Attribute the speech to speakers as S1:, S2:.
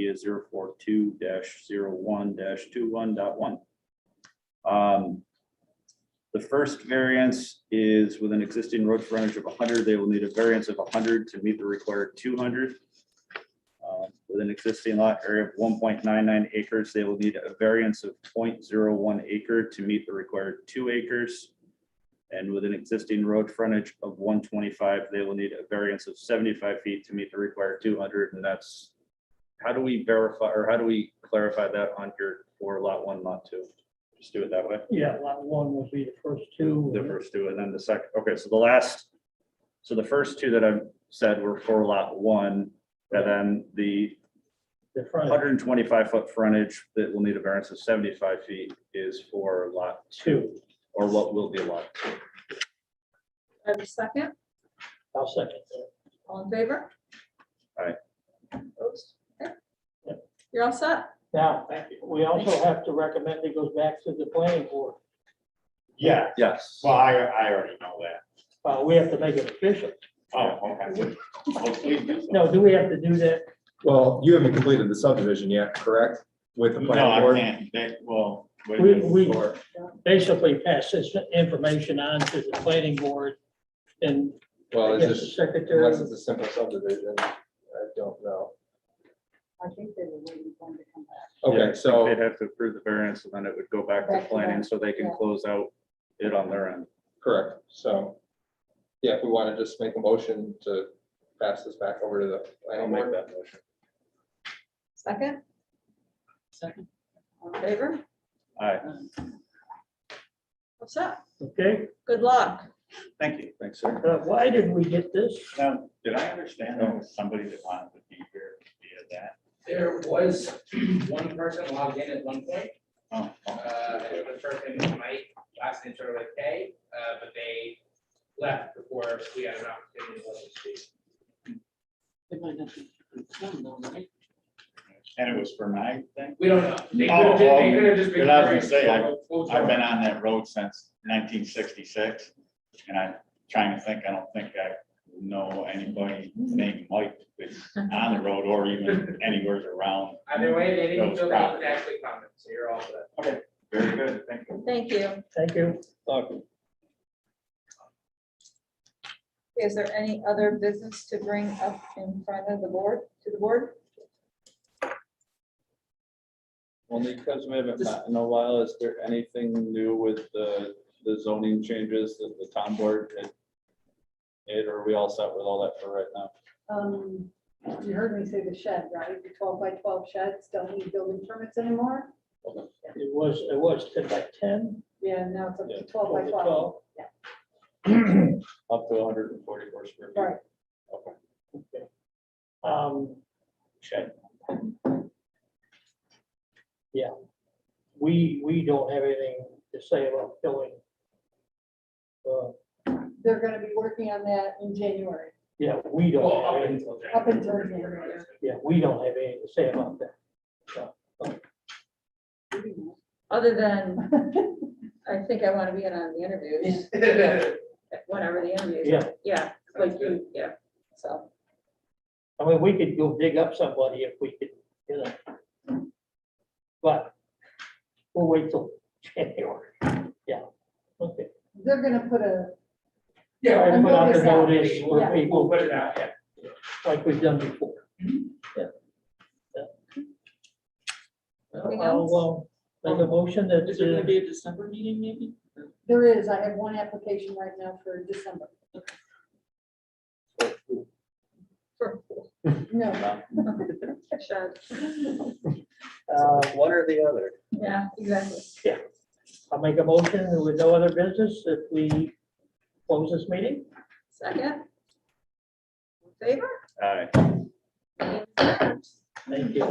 S1: is zero four two dash zero one dash two one dot one. Um, The first variance is with an existing road frontage of hundred, they will need a variance of hundred to meet the required two hundred. Um, With an existing lot area of one point nine nine acres, they will need a variance of 0.01 acre to meet the required two acres. And with an existing road frontage of one twenty-five, they will need a variance of seventy-five feet to meet the required two hundred, and that's. How do we verify, or how do we clarify that on your, for lot one, lot two? Just do it that way,
S2: Yeah, lot one will be the first two.
S1: the first two, and then the second, okay, so the last. So the first two that I've said were for lot one, and then the
S2: The front
S1: hundred and twenty-five foot frontage that will need a variance of seventy-five feet is for lot,
S2: two.
S1: or what will be lot. two.
S3: I have a second,
S2: I'll second that.
S3: all in favor?
S1: Aye.
S3: Opposed? Okay.
S2: Yep.
S3: You're all set?
S2: Now, we also have to recommend it goes back to the planning board.
S4: Yeah,
S1: Yes.
S4: well, I, I already know that.
S2: Uh, we have to make it official.
S4: Oh, okay. Oh, please do so.
S2: No, do we have to do that?
S5: Well, you haven't completed the subdivision yet, correct? With the
S4: No,
S5: planning
S4: I
S5: board?
S4: can't, that, well. wait a
S2: We,
S4: minute.
S2: we basically pass this information on to the planning board and
S5: Well,
S2: I
S5: it's
S2: guess the
S5: just,
S2: secretary.
S5: unless it's a simple subdivision, I don't know.
S6: I think they were waiting for them to come back.
S1: Yeah,
S5: Okay, so,
S1: They'd have to approve the variance and then it would go back
S6: Back
S1: to
S6: to
S1: planning so they can
S6: yeah.
S1: close out it on their end.
S5: correct, so, yeah, if we want to just make a motion to pass this back over to the planning board.
S1: that motion.
S3: Second,
S2: Second.
S3: all in favor?
S1: All right,
S3: What's up?
S2: Okay,
S3: Good luck.
S1: thank you. Thanks, sir.
S2: uh, why did we get this?
S4: Now, did I understand there was somebody that wanted to be here via that?
S7: There was one person logged in at one point,
S4: Oh, okay.
S7: uh, it was person Mike, last name started with K, uh, but they left before we had an opportunity to let them speak.
S4: And it was for my thing?
S7: We don't know. They
S4: Oh,
S7: could have,
S4: well,
S7: they could have just been.
S4: but I was gonna say, I-
S7: very- We'll
S4: I've
S7: try.
S4: been on that road since nineteen sixty-six, and I'm trying to think, I don't think I know anybody named Mike that's on the road or even anywhere around.
S7: Either way, they didn't
S4: Those
S7: feel that you
S4: properties.
S7: could actually comment, so you're all set.
S4: Very good, thank you.
S3: Thank you.
S2: Thank you.
S3: Is there any other business to bring up in front of the board, to the board?
S8: Only because we haven't met in a while, is there anything new with the, the zoning changes that the town board had? made, or are we all set with all that for right now?
S6: Um, you heard me say the shed, right? The twelve by twelve sheds don't need building permits anymore.
S2: It was, it was ten by ten.
S6: Yeah, now it's up
S8: Yeah,
S6: to twelve Oh, by twelve. yeah.
S8: Up to hundred and forty-four square feet.
S6: Right.
S2: Okay. Um,
S4: Check.
S2: we, we don't have anything to say about filling. Uh,
S6: They're gonna be working on that in January.
S2: yeah, we don't.
S7: Well,
S2: have
S7: up
S2: anything.
S7: until.
S6: Up until
S7: January,
S6: January,
S7: we're gonna-
S2: Yeah, we don't have anything to say about that.
S3: Other than, I think I want to be in on the interviews, whenever the interviews.
S2: Yeah.
S3: Yeah, like you, yeah, so.
S2: I mean, we could go dig up somebody if we could, you know. But we'll wait till January. Yeah, okay.
S6: They're gonna put a,
S7: Yeah,
S2: Sorry to put out the
S6: notice out.
S2: notice
S7: We'll-
S2: for
S7: we'll- we'll
S2: people
S7: put it out, yeah.
S2: like we've done before.
S9: Mm-hmm.
S2: Yeah.
S3: Anything
S2: I'll, uh, Make a motion that.
S9: Is there
S2: uh,
S9: gonna be a December meeting maybe?
S6: there is, I have one application right now for December. No,
S3: Sure.
S2: Uh,
S9: One or the other.
S3: Yeah, exactly.
S2: I'll make a motion with no other business if we close this meeting.
S3: Second. In Favor?
S1: All right.
S4: Uh,
S3: Meeting is adjourned.
S2: Thank you.